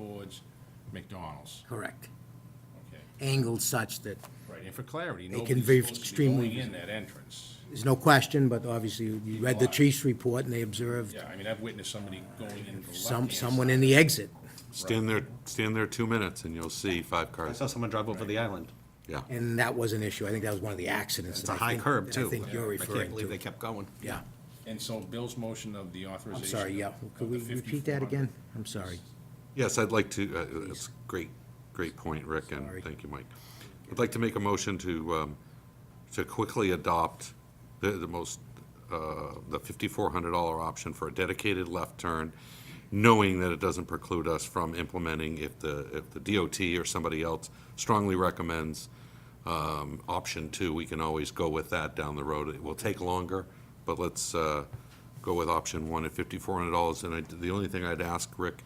towards McDonald's, Correct. okay? Angled such that Right, and for clarity, They nobody's can be supposed to be going extremely- in that entrance. There's no question, but obviously you read the chief's report and they observed Yeah, I mean, I've witnessed somebody going in the left some, someone in the exit. Stand there, stand there two minutes and you'll see five I cars. saw someone drive over the island. Yeah. And that was an issue. I think that was one of the accidents. It's that a I high think- curb, that too. I think you're I can't referring believe they to. kept going. Yeah. And so Bill's motion of the I'm authorization. sorry, yeah. of Could the we repeat that 5,400. again? I'm sorry. Yes, I'd like to, uh, that's a great, great point, Rick, and Sorry. thank you, Mike. I'd like to make a motion to, um, to quickly adopt the, the most, uh, the $5,400 option for a dedicated left turn, knowing that it doesn't preclude us from implementing if the, if the DOT or somebody else strongly recommends um, option two, we can always go with that down the road. It will take longer, but let's uh, go with option one at $5,400. And I, the only thing I'd ask, Rick,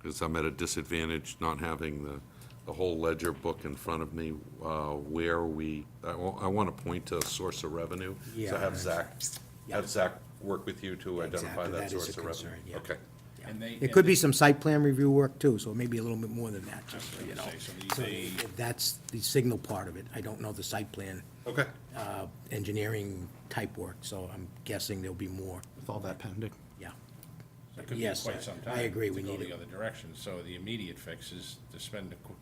because I'm at a disadvantage not having the, the whole ledger book in front of me, uh, where we, I want to point to a source of revenue. So Yeah. have Zach, Yeah. have Zach work with you to identify Exactly, that that is source a of revenue. concern, yeah. Okay. And they. It could be some site plan review work too, so maybe a little bit more than that, just, so you know. Say, so they- So they- That's the signal part of it. I don't know the site plan, Okay. uh, engineering type work, so I'm guessing there'll be more, With all that pending. yeah. It could be Yes, I- quite some I time. agree, we To need go it. the other direction, so the immediate fix is to spend the qu-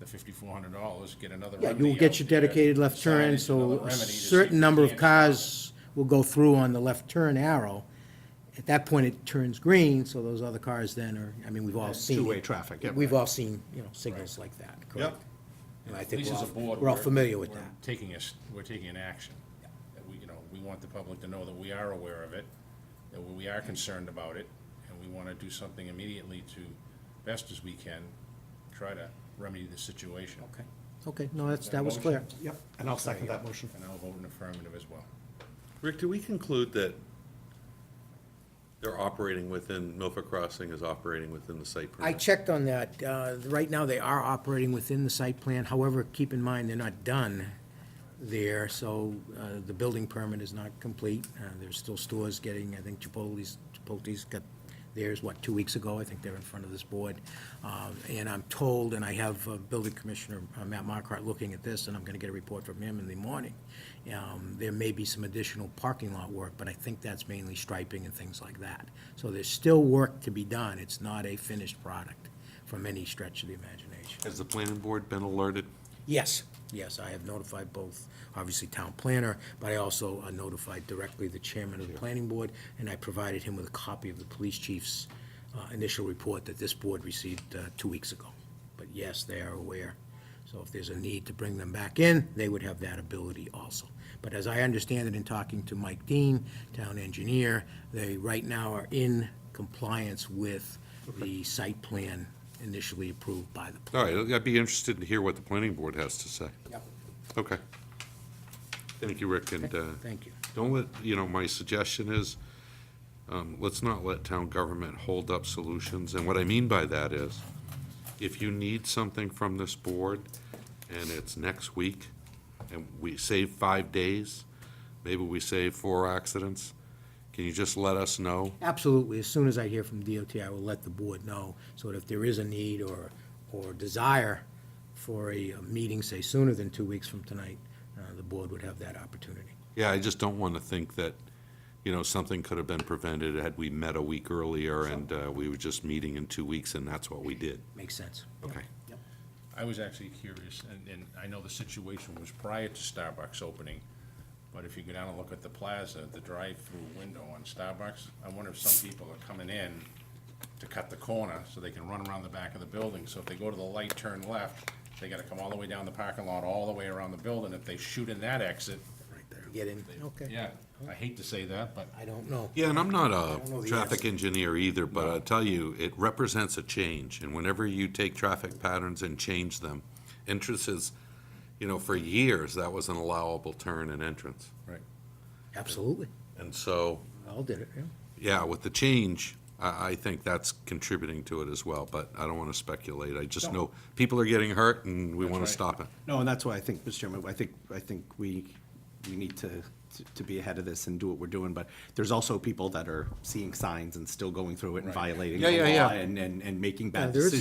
the fifty-four hundred dollars, get another Yeah, remedy you'll get uh, out your there, dedicated left turn, signage, another so a remedy to see if certain we number of can- cars will go through on the left turn arrow. At that point, it turns green, so those other cars then are, I mean, we've all seen. it. two-way traffic, yeah, We've right. all seen, you know, signals like that, correct? And I At think least we're as a all, board. we're all we're- familiar with we're that. Taking us, we're taking an action. That we, you know, we want the public to know that we are aware of it, that we are concerned about it, and we want to do something immediately to, best as we can, try to remedy the situation. Okay, okay, no, that's, that was clear. Yep, and I'll second that motion. And I'll vote in affirmative as well. Rick, do we conclude that they're operating within, Milford Crossing is operating within the site I perimeter? checked on that. Uh, Right now, they are operating within the site plan. However, keep in mind, they're not done there, so uh, the building permit is not complete. Uh, There's still stores getting, I think Chipotle's, Chipotle's got theirs, what, two weeks ago? I think they're in front of this board. Um, And I'm told, and I have uh, Building Commissioner uh, Matt Markart looking at this, and I'm going to get a report from him in the morning. Um, There may be some additional parking lot work, but I think that's mainly striping and things like that. So there's still work to be done. It's not a finished product from any stretch of the imagination. Has the planning board been alerted? Yes, yes, I have notified both, obviously town planner, but I also uh, notified directly the chairman of the planning board, and I provided him with a copy of the police chief's uh, initial report that this board received uh, two weeks ago. But yes, they are aware. So if there's a need to bring them back in, they would have that ability also. But as I understand it in talking to Mike Dean, town engineer, they right now are in compliance with the site plan initially approved by the. All right, I'd be interested to hear what the planning board has to say. Yep. Okay. Thank you, Rick, and uh, Thank you. don't let, you know, my suggestion is, um, let's not let town government hold up solutions. And what I mean by that is, if you need something from this board, and it's next week, and we save five days, maybe we save four accidents, can you just let us know? Absolutely. As soon as I hear from DOT, I will let the board know, so that if there is a need or, or desire for a a meeting, say sooner than two weeks from tonight, uh, the board would have that opportunity. Yeah, I just don't want to think that, you know, something could have been prevented had we met a week earlier and uh, we were just meeting in two weeks and that's what we did. Makes sense. Okay. I was actually curious, and, and I know the situation was prior to Starbucks opening, but if you go down and look at the plaza, the drive-through window on Starbucks, I wonder if some people are coming in to cut the corner so they can run around the back of the building. So if they go to the light, turn left, they gotta come all the way down the parking lot, all the way around the building. If they shoot in that exit, Get in, okay. yeah, I hate to say that, but I don't know. Yeah, and I'm not don't know a the traffic answer. engineer either, but I'll tell you, it represents a change. And whenever you take traffic patterns and change them, entrances, you know, for years, that was an allowable turn and entrance. Right. Absolutely. And so, All did it, yeah. yeah, with the change, I, I think that's contributing to it as well, but I don't want to speculate. I just know people are getting hurt and we want right. to stop it. No, and that's why I think, Mr. Chairman, I think, I think we, we need to, to be ahead of this and do what we're doing, but there's also people that are seeing signs and still going through it and violating Yeah, the yeah, yeah. law and, and, and making Yeah, bad there is decisions.